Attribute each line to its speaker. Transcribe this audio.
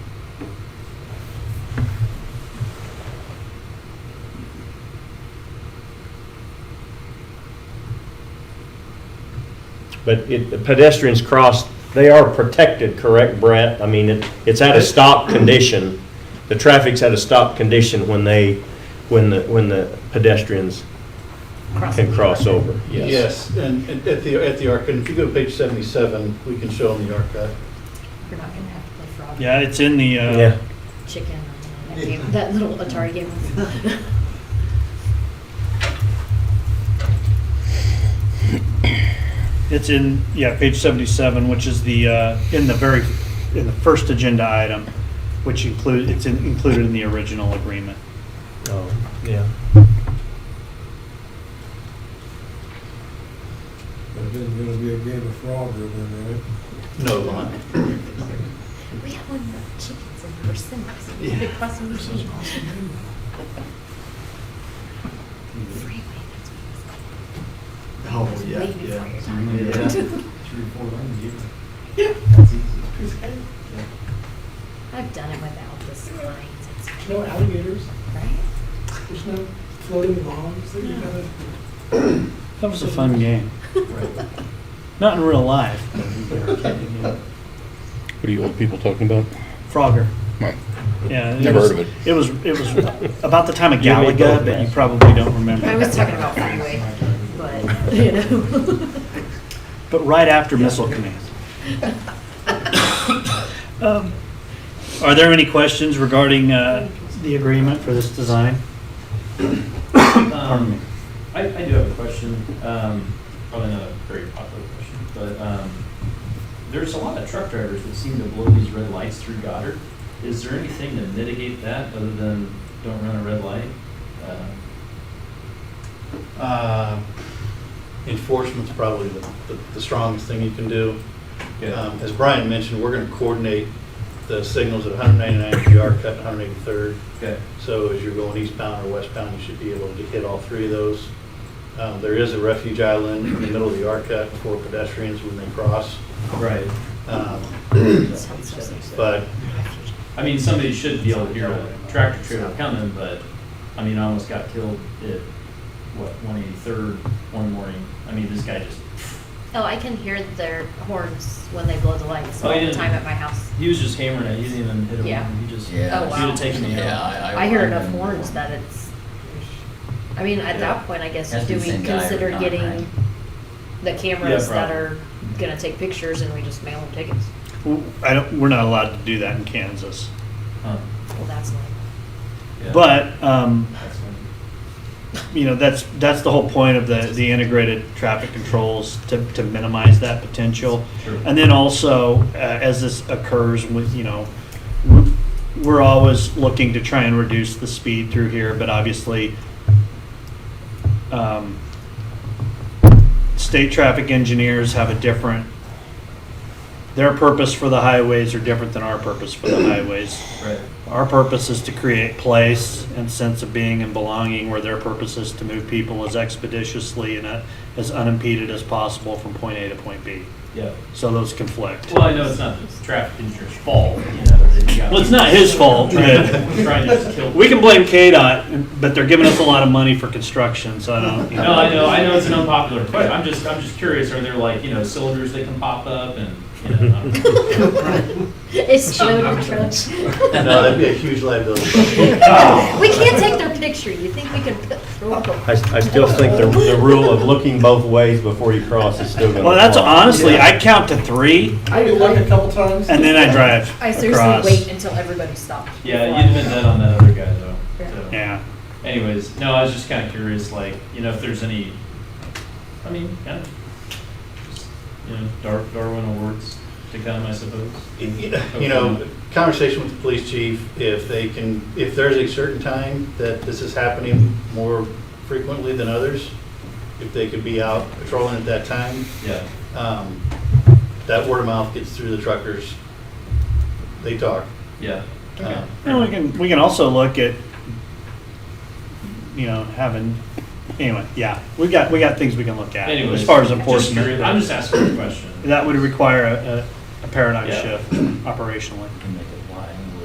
Speaker 1: but it, pedestrians cross, they are protected, correct, Brett? I mean, it, it's at a stop condition. The traffic's at a stop condition when they, when the, when the pedestrians can cross over, yes.
Speaker 2: Yes, and and at the, at the archive, if you go to page 77, we can show them the archive.
Speaker 3: You're not gonna have to play frog.
Speaker 4: Yeah, it's in the,
Speaker 1: Yeah,
Speaker 4: uh,
Speaker 3: Chicken. That game- That little Atari game.
Speaker 4: it's in, yeah, page 77, which is the, uh, in the very, in the first agenda item, which include, it's in- included in the original agreement.
Speaker 1: oh, yeah.
Speaker 5: But it isn't gonna be a game of frog or anything, right?
Speaker 2: No line.
Speaker 3: We have one with chickens and persons.
Speaker 2: Yeah.
Speaker 3: Big crossing machine. Freeway, that's
Speaker 2: Oh, yeah,
Speaker 3: Way before
Speaker 2: yeah.
Speaker 3: your
Speaker 2: Yeah.
Speaker 3: what- I've done it without the slides. It's
Speaker 6: No alligators,
Speaker 3: right.
Speaker 6: there's no floating logs that you gotta.
Speaker 4: That was a fun game. Not in real life. but we were kidding, yeah.
Speaker 7: What are you old people talking about?
Speaker 4: Frogger.
Speaker 7: Well,
Speaker 4: Yeah. it
Speaker 7: Never
Speaker 4: was-
Speaker 7: heard of it.
Speaker 4: It was, it was about the time of
Speaker 1: You and me
Speaker 4: Galaga,
Speaker 1: both,
Speaker 4: but you
Speaker 1: man.
Speaker 4: probably don't remember.
Speaker 3: I was talking about freeway, but, you know.
Speaker 4: But right after Missile Command. Um, Are there any questions regarding uh, the agreement for this design? Pardon me.
Speaker 8: Um, I, I do have a question, um, probably not a very popular question, but, um, there's a lot of truck drivers that seem to blow these red lights through Goddard. Is there anything to mitigate that other than don't run a red light? Uh,
Speaker 2: Uh, Enforcement's probably the, the- the strongest thing you can do. Um, As Brian mentioned, we're gonna coordinate the signals at 199 if you are cutting 183rd.
Speaker 8: Okay,
Speaker 2: So as you're going eastbound or westbound, you should be able to hit all three of those. Um, There is a refuge island in the middle of the arc cut for pedestrians when they cross.
Speaker 8: right.
Speaker 2: Um,
Speaker 3: Sounds so sexy.
Speaker 2: But
Speaker 8: I mean, somebody should be able to hear a tractor trailer coming, but, I mean, I almost got killed at, what, one eighty-third one morning. I mean, this guy just,
Speaker 3: Oh, I can hear their horns when they blow the lights
Speaker 8: Oh,
Speaker 3: all the
Speaker 8: yeah.
Speaker 3: time at my house.
Speaker 8: he was just hammering it, he didn't even hit a
Speaker 3: Yeah.
Speaker 8: one, he just, he
Speaker 9: Yeah.
Speaker 3: Oh, wow.
Speaker 8: have taken me out.
Speaker 3: I hear enough horns that it's, I mean, at that point, I guess,
Speaker 9: Has to
Speaker 3: do
Speaker 9: be
Speaker 3: we
Speaker 9: the same guy every
Speaker 3: consider
Speaker 9: time,
Speaker 3: getting
Speaker 9: right?
Speaker 3: the cameras
Speaker 8: Yeah,
Speaker 3: that
Speaker 8: probably.
Speaker 3: are gonna take pictures and we just mail them tickets?
Speaker 4: W- I don't, we're not allowed to do that in Kansas.
Speaker 8: Huh.
Speaker 3: Well, that's not,
Speaker 8: Yeah.
Speaker 4: But, um,
Speaker 8: That's funny.
Speaker 4: you know, that's, that's the whole point of the, the integrated traffic controls to, to minimize that potential.
Speaker 8: Sure.
Speaker 4: And then also, uh, as this occurs with, you know, we're- we're always looking to try and reduce the speed through here, but obviously, um, state traffic engineers have a different, their purpose for the highways are different than our purpose for the highways.
Speaker 8: Right.
Speaker 4: Our purpose is to create place and sense of being and belonging, where their purpose is to move people as expeditiously and uh, as unimpeded as possible from point A to point B.
Speaker 8: Yeah.
Speaker 4: So those conflict.
Speaker 8: Well, I know it's not the traffic engineer's fault. You know, they've got-
Speaker 4: Well, it's not his fault,
Speaker 8: Trying
Speaker 4: but-
Speaker 8: to, trying to just kill.
Speaker 4: We can blame KDOT, but they're giving us a lot of money for construction, so I don't. you
Speaker 8: No, I know. I know it's an unpopular question. I'm just, I'm just curious. Are there like you know cylinders that can pop up and you know? I don't know.
Speaker 3: it's loaded trucks.
Speaker 2: no, that'd be a huge liability.
Speaker 3: We can't take their picture, you think we can put- throw up
Speaker 1: I,
Speaker 3: a
Speaker 1: I still think the, the rule of looking both ways before you cross is still gonna.
Speaker 4: Well, that's
Speaker 1: apply.
Speaker 4: honestly, I count to three
Speaker 6: I did like a couple times.
Speaker 4: and then I drive
Speaker 3: I
Speaker 4: across.
Speaker 3: seriously wait until everybody stops.
Speaker 8: Yeah,
Speaker 3: before
Speaker 8: you
Speaker 3: I-
Speaker 8: admit that on that other guy though. So.
Speaker 4: Yeah.
Speaker 8: Anyways, no, I was just kind of curious, like you know, if there's any. I mean, kind of. just, You know, Dar- Darwin awards to come, I suppose.
Speaker 2: You know, conversation with the police chief, if they can, if there's a certain time that this is happening more frequently than others, if they could be out patrolling at that time,
Speaker 8: Yeah.
Speaker 2: um, that word of mouth gets through the truckers. They talk.
Speaker 8: Yeah.
Speaker 2: Um,
Speaker 4: And we can, we can also look at, you know, having, anyway, yeah, we got, we got things we can look at
Speaker 8: Anyways,
Speaker 4: as far as
Speaker 8: just curious.
Speaker 4: enforcement.
Speaker 8: I'm just asking a question.
Speaker 4: That would require a, a- a paradigm
Speaker 8: Yeah.
Speaker 4: shift operationally.
Speaker 9: Can they